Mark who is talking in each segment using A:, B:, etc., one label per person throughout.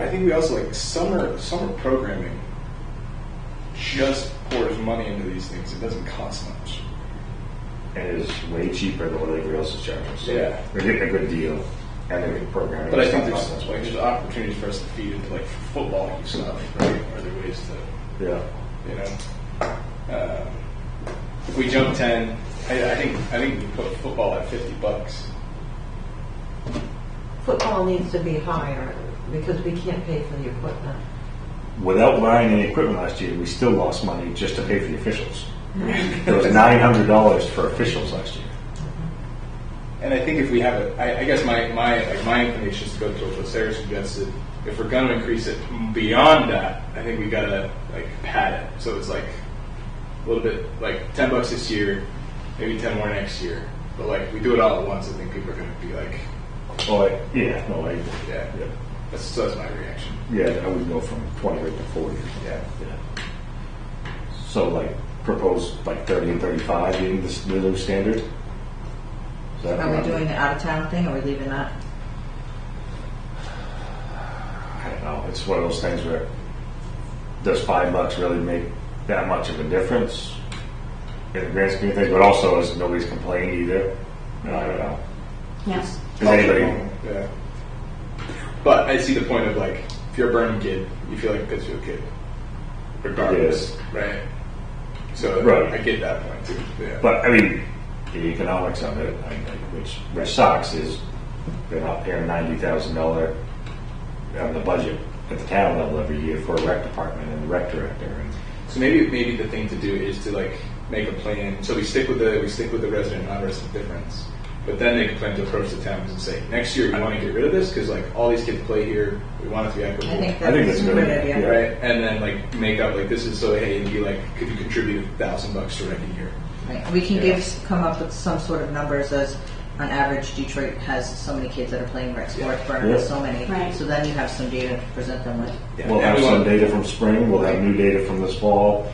A: I think we also like summer summer programming just pours money into these things. It doesn't cost much.
B: and it's way cheaper than what anybody else is charging. So
A: Yeah.
B: we're getting a good deal, and then we program. it.
A: But I think
B: It's
A: there's
B: not that
A: like
B: much.
A: there's opportunities for us to feed into like football and stuff, right? Are there ways to
B: yeah,
A: you know? Um, if we jump ten, I, I think I think we put football at fifty bucks.
C: Football needs to be higher because we can't pay for the equipment.
B: without buying any equipment last year, we still lost money just to pay for the officials. it was nine hundred dollars for officials last year.
A: And I think if we have it, I, I guess my my like my inclination is to go to what Sarah suggested. If we're going to increase it beyond that, I think we gotta like pad it. So it's like a little bit like ten bucks this year, maybe ten more next year. But like we do it all at once, I think people are gonna be like,
B: Oh I, yeah, no, I
A: yeah.
B: yeah,
A: That's, so that's my reaction.
B: yeah, I would go from twenty eight to forty. Or something.
A: Yeah.
B: Yeah. So like propose like thirty and thirty five being the, s- the new standard. Is that
D: Are
B: around-
D: we doing the out of town thing or are we leaving that?
B: I don't know. It's one of those things where does five bucks really make that much of a difference in the grand scheme of things? But also, is nobody's complaining either? No, I don't know.
E: Yeah.
B: Does anybody?
A: Yeah. But I see the point of like, if you're a Burnham kid, you feel like a Pittsfield kid, regardless, right? So
B: Right.
A: I get that point too. Yeah.
B: But I mean, the economics of it, I mean, which which sucks, is they're not paying ninety thousand dollar on the budget at the town level every year for a rec department and the rec director. And,
A: So maybe maybe the thing to do is to like make a plan. So we stick with the we stick with the resident non-resident difference, but then make a plan to approach the towns and say next year we want to get rid of this because like all these kids play here, we want it to be equitable.
D: I think
B: I think
D: that's
B: that's
D: a good
B: good.
D: idea.
B: Yeah.
A: Right, and then like make up like this is so hey, and be like, could you contribute a thousand bucks to rent a year?
D: Right. We can
A: Yeah.
D: give, come up with some sort of numbers as, on average, Detroit has so many kids that are playing rec sport, Vernon has
B: Yeah.
D: so many.
E: Right.
D: So then you have some data to present them with.
A: Yeah,
B: We'll
A: and
B: have
A: we
B: some
A: want-
B: data from spring, we'll have new data from this fall,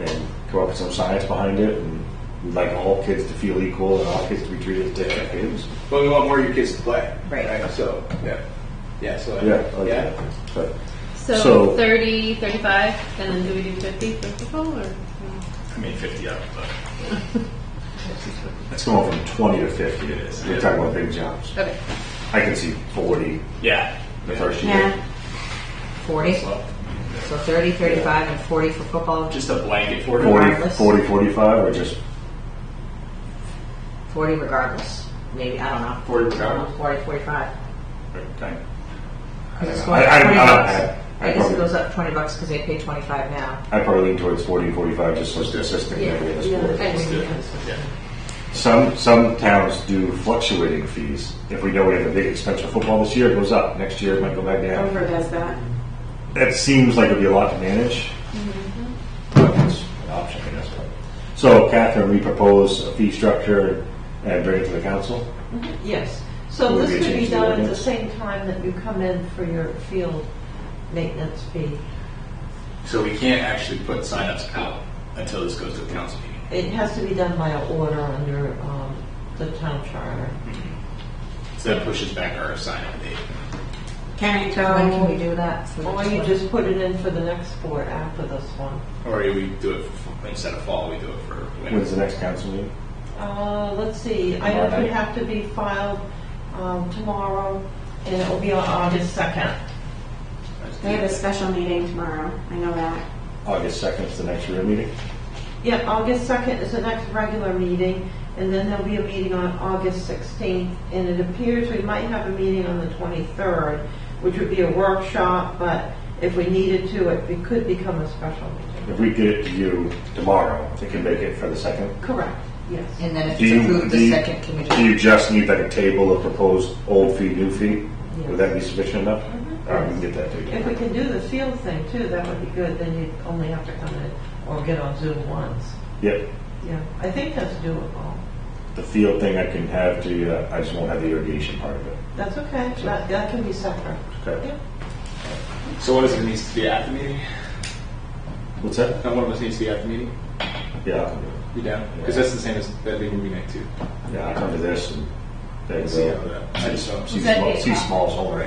B: and come up with some science behind it, and we'd like all kids to feel equal and all kids to be treated as different kids.
A: But we want more of your kids to play.
D: Right.
A: So yeah, yeah. So
B: Yeah, I like
A: yeah.
B: that. But So-
E: So 30, 35, and then do we do 50 for football or?
A: I mean fifty up, but
B: it's going from twenty to fifty,
A: It is,
B: we're
A: yeah.
B: talking about big jumps.
E: Okay.
B: I can see forty
A: yeah.
B: the first year.
E: Yeah.
D: 40,
A: Well,
D: so 30, 35, and 40 for football,
A: just a blanket for it.
B: 40,
D: Regardless.
B: 40, 45, or just,
D: 40 regardless. Maybe, I don't know.
A: 40
D: I don't know,
A: regardless.
D: 40, 45.
B: I,
D: Because
B: I-
D: it's going
B: I-
D: up 20
B: I-
D: bucks.
B: I- I
D: I guess
B: probably-
D: it goes up 20 bucks because they pay 25 now.
B: I probably lean towards 40, 45, just so it's consistent in every other sport. Some, some towns do fluctuating fees. If we know we have a big expense for football this year, it goes up, next year it might go back down.
E: Denver does that.
B: That seems like it'd be a lot to manage.
E: Mm-hmm.
B: But it's an option, I guess. So Catherine, we propose a fee structure and bring it to the council?
C: Yes, so
B: Will we
C: this could be
B: change the
C: done at the
B: ordinance?
C: same time that you come in for your field maintenance fee.
A: So we can't actually put signups out until this goes to the council meeting.
C: It has to be done by an order under um, the town charter.
A: So that pushes back our sign-up date.
E: Can it
D: When can we
E: go?
D: do that? for the
C: Or
D: next
C: you
D: one?
C: just put it in for the next sport after this one.
A: Or we do it for, instead of fall, we do it for
B: When's
A: winter.
B: the next council meeting?
C: Uh, let's see, I know it would have to be filed um, tomorrow, and it will be on August second.
E: They have a special meeting tomorrow. I know that.
B: August 2nd is the next real meeting?
C: Yeah, August second is the next regular meeting, and then there'll be a meeting on August sixteenth, and it appears we might have a meeting on the twenty-third, which would be a workshop, but if we needed to, it be- could become a special meeting.
B: If we get it to you tomorrow, they can make it for the 2nd?
C: Correct, yes.
D: And then if
B: Do
D: it's
B: you-
D: approved,
B: do
D: the
B: you-
D: second committee.
B: Do you just need like a table of proposed old fee, new fee? Would that be sufficient enough?
D: Mm-hmm.
B: All right, we can get that to
C: If
B: you.
C: we can do the field thing too, that would be good, then you'd only have to come in or get on Zoom once.
B: Yep,
C: Yeah, I think that's doable.
B: the field thing I can have to you, I just won't have the irrigation part of it.
C: That's okay, that, that can be separate.
B: Okay.
C: Yeah.
A: So one of us needs to be at the meeting.
B: What's that?
A: Not one of us needs to be at the meeting.
B: Yeah, I'll come to
A: You down? Because that's the same as that big movie night too.
B: it. yeah, I'll come to this and then
A: See how that- I
B: go.
A: just don't-
B: See
E: that
B: small,
E: eight
B: see
E: o'clock?
B: smalls only.